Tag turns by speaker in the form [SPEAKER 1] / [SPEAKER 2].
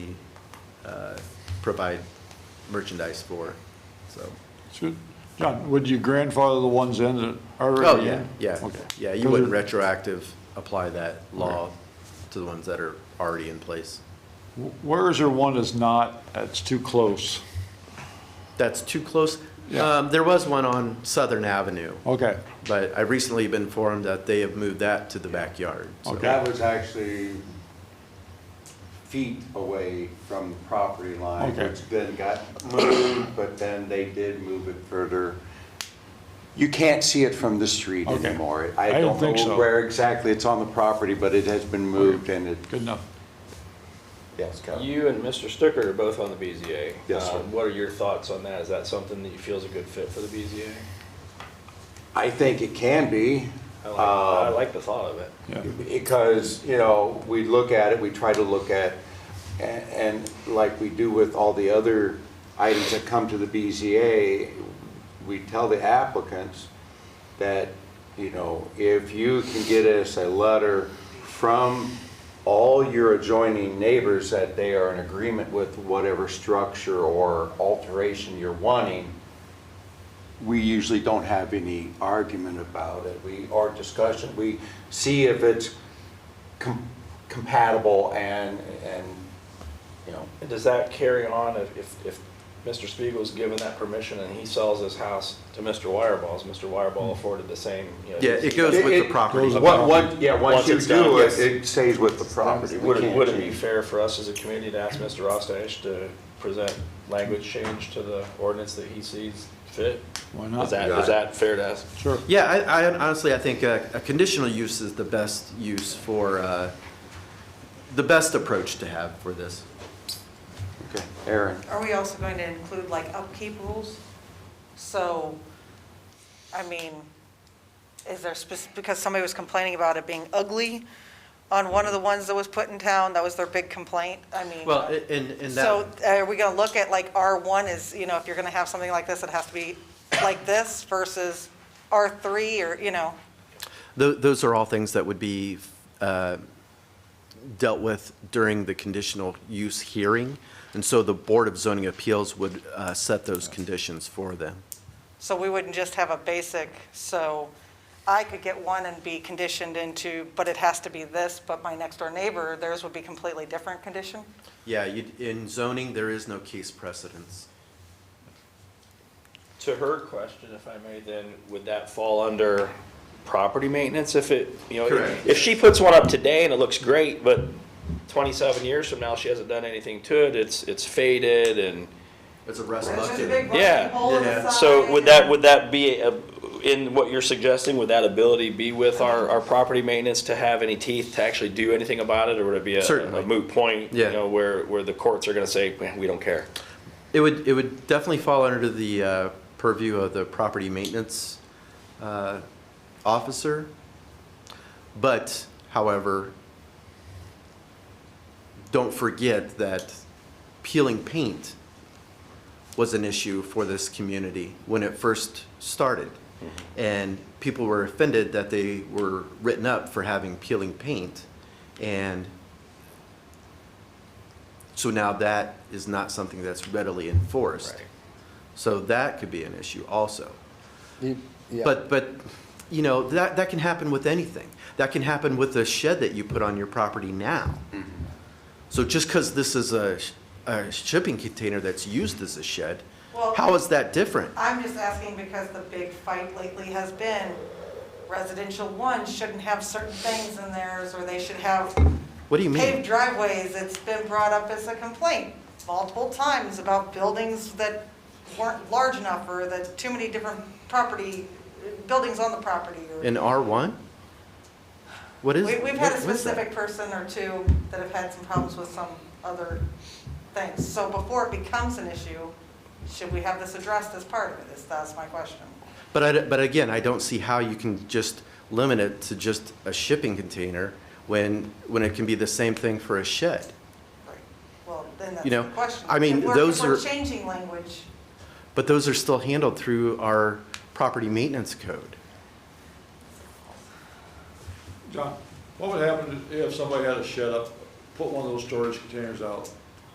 [SPEAKER 1] uh, provide merchandise for, so.
[SPEAKER 2] Should- John, would you grandfather the ones in that are
[SPEAKER 1] Oh,
[SPEAKER 2] already
[SPEAKER 1] yeah,
[SPEAKER 2] in?
[SPEAKER 1] yeah,
[SPEAKER 2] Okay.
[SPEAKER 1] yeah, you
[SPEAKER 2] Those
[SPEAKER 1] wouldn't
[SPEAKER 2] are-
[SPEAKER 1] retroactive apply that law to the ones that are already in place.
[SPEAKER 2] Where is there one that's not, that's too close?
[SPEAKER 1] That's too close.
[SPEAKER 2] Yeah.
[SPEAKER 1] Um, there was one on Southern Avenue,
[SPEAKER 2] Okay,
[SPEAKER 1] but I've recently been informed that they have moved that to the backyard. so-
[SPEAKER 2] Okay.
[SPEAKER 3] That was actually feet away from the property line,
[SPEAKER 2] Okay.
[SPEAKER 3] which then got moved, but then they did move it further. You can't see it from the street
[SPEAKER 2] Okay.
[SPEAKER 3] anymore.
[SPEAKER 2] I
[SPEAKER 3] I
[SPEAKER 2] didn't
[SPEAKER 3] don't
[SPEAKER 2] think so.
[SPEAKER 3] know where exactly it's on the property, but it has been moved and it,
[SPEAKER 2] good enough.
[SPEAKER 3] yes, Kevin.
[SPEAKER 4] You and Mr. Sticker are both on the BZA.
[SPEAKER 3] Yes, sir.
[SPEAKER 4] Um, What are your thoughts on that? Is that something that you feel is a good fit for the BZA?
[SPEAKER 3] I think it can be.
[SPEAKER 4] I like,
[SPEAKER 3] uh,
[SPEAKER 4] I like the thought of it.
[SPEAKER 2] Yeah.
[SPEAKER 3] Because, you know, we look at it, we try to look at, a- and like we do with all the other items that come to the BZA, we tell the applicants that, you know, if you can get us a letter from all your adjoining neighbors that they are in agreement with whatever structure or alteration you're wanting, we usually don't have any argument about it. We, our discussion, we see if it's com- compatible and, and, you know,
[SPEAKER 4] And does that carry on if, if, if Mr. Spiegel's given that permission and he sells his house to Mr. Wireball? Is Mr. Wireball afforded the same, you know?
[SPEAKER 1] Yeah, it goes with the
[SPEAKER 3] It- it-
[SPEAKER 1] property.
[SPEAKER 2] goes-
[SPEAKER 3] What, what, yeah, once
[SPEAKER 4] Once
[SPEAKER 3] you
[SPEAKER 4] it's done,
[SPEAKER 3] do it,
[SPEAKER 4] yes.
[SPEAKER 3] it stays with the property. We
[SPEAKER 4] Would it,
[SPEAKER 3] can't
[SPEAKER 4] would it be
[SPEAKER 3] change
[SPEAKER 4] fair for us as a committee to ask Mr. Rostash to present language change to the ordinance that he sees fit?
[SPEAKER 2] Why not?
[SPEAKER 4] Is that, is that fair to ask?
[SPEAKER 2] Sure.
[SPEAKER 1] Yeah, I, I honestly, I think a, a conditional use is the best use for, uh, the best approach to have for this.
[SPEAKER 3] Okay, Aaron,
[SPEAKER 5] Are we also going to include like upkeep rules? So, I mean, is there specific, because somebody was complaining about it being ugly on one of the ones that was put in town, that was their big complaint, I mean.
[SPEAKER 1] Well, a- and, and
[SPEAKER 5] So
[SPEAKER 1] that,
[SPEAKER 5] are we gonna look at like R1 is, you know, if you're gonna have something like this, it has to be like this versus R3 or, you know?
[SPEAKER 1] tho- those are all things that would be, uh, dealt with during the conditional use hearing. And so the Board of Zoning Appeals would, uh, set those conditions for them.
[SPEAKER 5] So we wouldn't just have a basic, so I could get one and be conditioned into, but it has to be this, but my next door neighbor, theirs would be completely different condition?
[SPEAKER 1] Yeah, you, in zoning, there is no case precedence.
[SPEAKER 4] To her question, if I may, then, would that fall under property maintenance if it, you know?
[SPEAKER 1] Correct.
[SPEAKER 4] If she puts one up today and it looks great, but twenty-seven years from now, she hasn't done anything to it, it's, it's faded and,
[SPEAKER 1] It's a rust
[SPEAKER 5] It's just a
[SPEAKER 1] bucket.
[SPEAKER 5] big
[SPEAKER 4] Yeah.
[SPEAKER 5] rotten hole in the
[SPEAKER 1] Yeah.
[SPEAKER 5] side
[SPEAKER 4] so would
[SPEAKER 5] and-
[SPEAKER 4] that, would that be, a- in what you're suggesting, would that ability be with our, our property maintenance to have any teeth to actually do anything about it, or would it be a-
[SPEAKER 1] Certainly.
[SPEAKER 4] a moot point?
[SPEAKER 1] Yeah.
[SPEAKER 4] You know, where, where the courts are gonna say, "Man, we don't care.
[SPEAKER 1] It would, it would definitely fall under the uh, purview of the property maintenance uh, officer. But however, don't forget that peeling paint was an issue for this community when it first started. And people were offended that they were written up for having peeling paint. And so now that is not something that's readily enforced. So that could be an issue also. But, but, you know, that, that can happen with anything. That can happen with a shed that you put on your property now.
[SPEAKER 5] Mm-hmm.
[SPEAKER 1] So just because this is a, sh- a shipping container that's used as a shed,
[SPEAKER 5] Well-
[SPEAKER 1] how is that different?
[SPEAKER 5] I'm just asking because the big fight lately has been residential one shouldn't have certain things in theirs, or they should have
[SPEAKER 1] What do you mean?
[SPEAKER 5] paved driveways. It's been brought up as a complaint multiple times about buildings that weren't large enough, or that too many different property, buildings on the property, or.
[SPEAKER 1] In R1? What is?
[SPEAKER 5] We, we've had a
[SPEAKER 1] what- what's that?
[SPEAKER 5] specific person or two that have had some problems with some other things. So before it becomes an issue, should we have this addressed as part of it? Is, that's my question.
[SPEAKER 1] But I, but again, I don't see how you can just limit it to just a shipping container when, when it can be the same thing for a shed.
[SPEAKER 5] Right. Well, then that's
[SPEAKER 1] You know,
[SPEAKER 5] the question.
[SPEAKER 1] I mean,
[SPEAKER 5] If we're-
[SPEAKER 1] those
[SPEAKER 5] If
[SPEAKER 1] are-
[SPEAKER 5] we're changing language,
[SPEAKER 1] But those are still handled through our property maintenance code.
[SPEAKER 2] John, what would happen if somebody had a shed up, put one of those storage containers out,